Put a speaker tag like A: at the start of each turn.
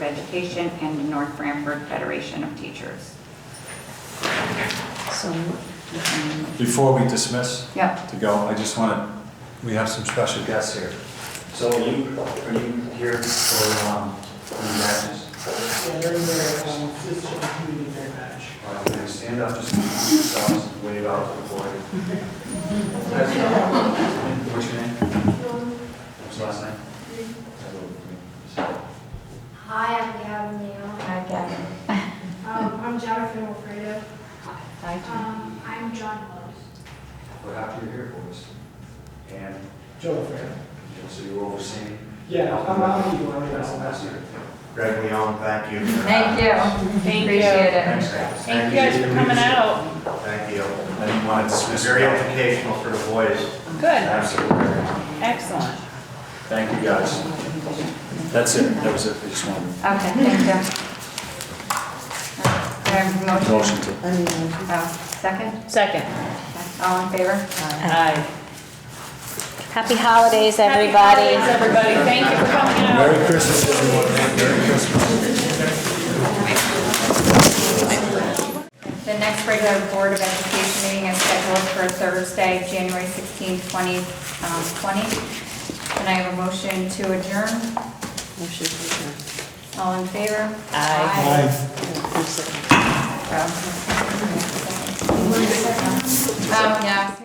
A: Education and the North Branford Federation of Teachers.
B: So,
C: Before we dismiss
A: Yep,
C: to go, I just want to, we have some special guests here.
D: So are you, are you here for, um, for the matches?
E: Yeah, they're in their, um, system community fair match.
D: All right, then stand up, just introduce yourselves, and wave out to the board. That's all. What's your name? What's your last name?
F: Hi, I'm Gavin Leon.
B: I got it.
F: Um, I'm Jennifer Wilfredo.
B: I do.
F: Um, I'm John Lowe's.
D: We're happy you're here for us. And
E: Joe Fair.
D: and so you're overseeing.
E: Yeah, I'm, I'm, you want to
D: That's
E: ask
D: that's
E: that?
D: it. Greg Leon, thank you.
A: thank you.
G: Thank
A: Appreciate
G: you.
A: it.
D: guys.
G: Thank you guys for coming out.
D: Thank you.
C: I didn't want to dismiss.
D: Very educational for the boys.
G: Good,
D: Absolutely.
G: excellent.
C: Thank you, guys. That's it, that was it, I just wanted
A: Okay, thank you. Do I have a
C: a
A: motion?
C: motion to.
B: I mean,
A: Uh, Second?
G: Second.
A: All in favor?
G: Aye.
H: Happy holidays,
G: Happy
H: everybody.
G: holidays, everybody. Thank you for coming out.
C: Merry Christmas, everyone. Merry Christmas.
A: The next regular Board of Education meeting is scheduled for Thursday, January 16, 2020. Can I have a motion to adjourn?
B: motion to
A: All in favor?
G: Aye.
B: adjourn. I'm sorry.
A: Aye. Um, yeah.